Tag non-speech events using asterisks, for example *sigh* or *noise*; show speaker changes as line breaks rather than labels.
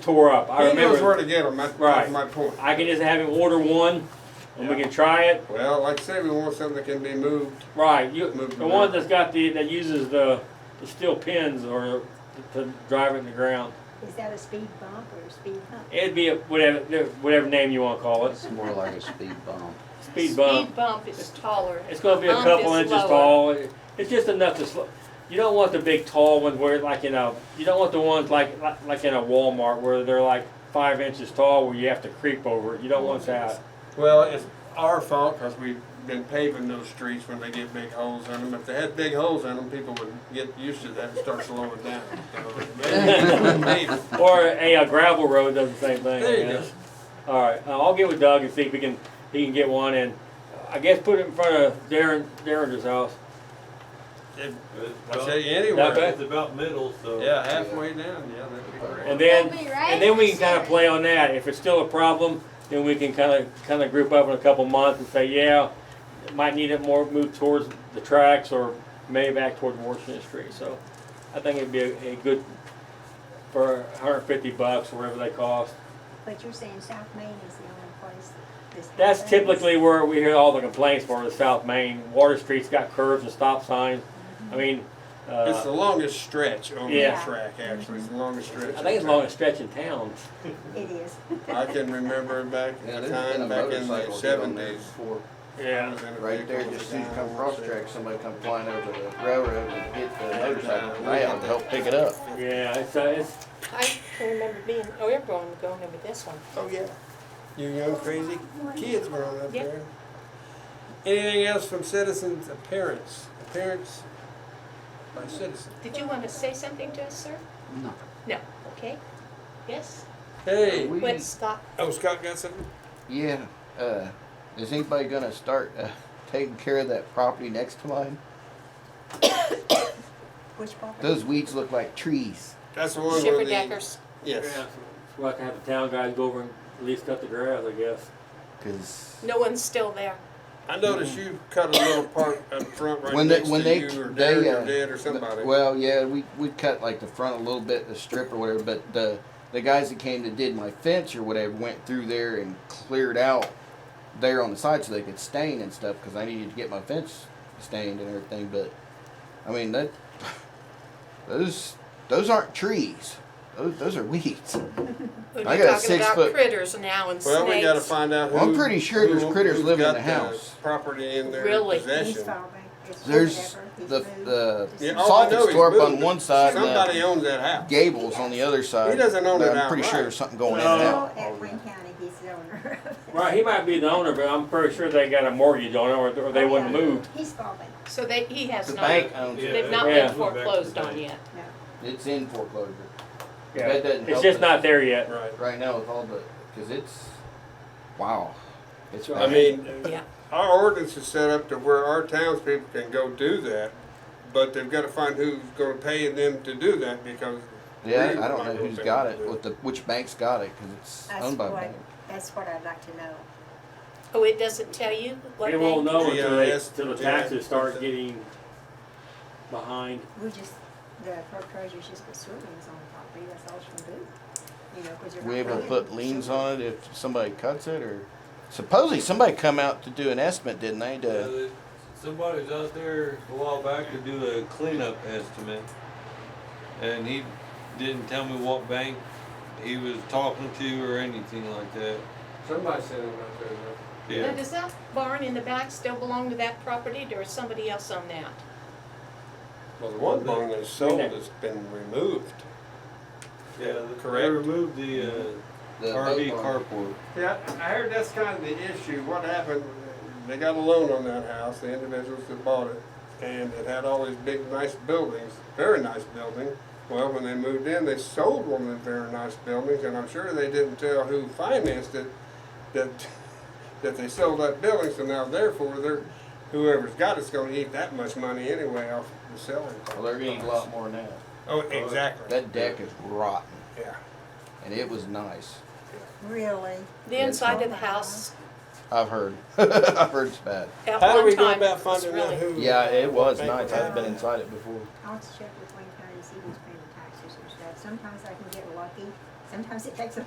tore up. I
He knows where
remember.
to get them, that's
Right.
that's my point.
I can just have him order one, and we can try it.
Well, like I say, we want something that can be moved.
Right, you,
Move
the
them
one
out.
that's got the, that uses the, the steel pins or to drive it in the ground.
Is that a speed bump or a speed hump?
It'd be a, whatever, whatever name you wanna call it,
It's more like a speed bump.
speed bump.
Speed bump is taller.
It's gonna be a
Bump
couple
is
inches
lower.
tall. It's just enough to slow. You don't want the big tall ones where like in a, you don't want the ones like, like, like in a Walmart where they're like five inches tall where you have to creep over it. You don't want that.
Well, it's our fault because we've been paving those streets when they get big holes in them. If they had big holes in them, people would get used to that and start slowing down.
*laughs*
So, maybe- maybe.
Or a, a gravel road does the same thing. I
There you
guess. All right, uh, I'll get with Doug and see if we can, he can get one and I guess put it in front of Darren, Darren's house.
If-
It's
I
about-
say
Not
anywhere,
bad.
It's about middle, so.
yeah, halfway down, yeah, that'd be great.
And then,
That'd be right.
and then we can kind of play on that. If it's still a problem, then we can kind of, kind of group up in a couple months and say, yeah, might need it more, move towards the tracks or maybe back toward Washington Street. So I think it'd be a, a good, for hundred fifty bucks, whatever they cost.
But you're saying South Main is the only place this.
That's
happens.
typically where we hear all the complaints for the South Main. Water Street's got curves and stop signs. I mean,
It's
uh,
the longest stretch on the
Yeah.
track, actually, it's the longest stretch.
I think it's the longest stretch in town.
It is.
I can remember back
*laughs* Yeah,
in
there's
the
been a
time, back in
motorcycle
the
hit on there
seventies.
before.
Yeah.
Right there, just see you come cross track, somebody come flying over the railroad and hit the motorcycle around and help pick it up.
Yeah, it's, uh, it's,
I can remember being, oh, everyone going over this one.
Oh, yeah. You young crazy kids were on up
Yep.
there. Anything else from citizens, appearance, appearance by citizens?
Did you want to say something to us, sir?
No.
No, okay. Yes?
Hey,
We-
What, Scott?
oh, Scott got something?
Yeah, uh, is anybody gonna start, uh, taking care of that property next to mine?
Which property?
Those weeds look like trees.
That's the one where
Shipper
the,
Deckers.
yes.
We'll have to have the town guys go over and at least cut the grass, I guess.
Cause
No one's still there.
I noticed you cut a little part up front right
when they,
next to
when they,
you or Derek
they, uh.
or Dad or
the-
somebody.
Well, yeah, we, we cut like the front a little bit, the strip or whatever, but the, the guys that came that did my fence or whatever went through there and cleared out there on the side so they could stain and stuff, cause I needed to get my fence stained and everything, but, I mean, that, *laughs* those, those aren't trees. Those, those are weeds.
We'd
I
be
got a
talking
six
about
foot-
critters now and
Well, we gotta
snakes.
find out who.
Well, I'm pretty sure there's
who-
critters
who's
living
got
in the house.
Property in their
Really?
He's
possession.
far back. It's
There's
whatever. He's
the,
moved.
the
Yeah, all I know
Sofix
is
Torp on
moved.
one side uh, and
Somebody
the
owns that house.
Gables on the other side.
doesn't own it
I'm pretty sure
outright.
there's something going in
He's
and
No.
out.
still at Wayne County, he's the owner.
Uh, *laughs* Right, he might be the owner, but I'm pretty sure they got a mortgage on it or, or they
Oh,
wouldn't
Oh, Yeah.
move.
He's far back,
So they, he has
The
not.
bank owns it.
They've not
Yeah.
been foreclosed on yet.
no.
It's in foreclosure.
Yeah.
That doesn't
It's
help
just
us.
not there yet.
Right.
Right now with all the, cause it's, wow. It's.
I
bad.
mean,
Yeah.
our ordinance is set up to where our townspeople can go do that, but they've gotta find who's gonna pay them to do that because.
Yeah,
we
I don't
might
know
be able
who's
to
got
do
it, with the, which bank's got it, cause it's
That's
owned by a
what,
bank.
that's what I'd like to know.
Oh, it doesn't tell you what
They
they.
won't know
Yeah,
until they,
that's-
until the
yeah.
taxes start getting behind.
We just, the clerk treasurer's just put swimmings on the property, that's all she can do. You know, because you're.
We
not
able to
paying.
put liens on it if somebody cuts it, or supposedly somebody come out to do an estimate, didn't they,
Uh,
to,
they- Somebody was out there a while back to do a cleanup estimate, and he didn't tell me what bank he was talking to or anything like that.
Somebody said it out there.
Now,
Yeah,
does that barn in the back still belong to that property or is somebody else on that?
Well, the one barn that's sold
Isn't it?
has been removed.
yeah, they
Correct.
removed the, uh,
the
RV
boat barn?
carport.
Yeah, I heard that's kind of the issue. What happened, they got a loan on that house, the individuals that bought it, and it had all these big, nice buildings, very nice building. Well, when they moved in, they sold one of the very nice buildings, and I'm sure they didn't tell who financed it that, *laughs* that they sold that building, so now therefore, they're, whoever's got it's gonna eat that much money anyway off the selling.
Well, they're gonna eat a lot more now.
Oh, exactly,
That deck is rotten,
yeah.
and it was nice,
Really?
The
Yeah, it's
inside of
not.
the house
I've heard, *laughs* I've heard it's bad.
at
How do
one
we go
time
about
was
finding out
really.
who?
Yeah, it was
Bank
nice,
was
I've been inside it before.
I'll have to check with Wayne County and see who's paying the taxes and stuff. Sometimes I can get lucky Sometimes it takes a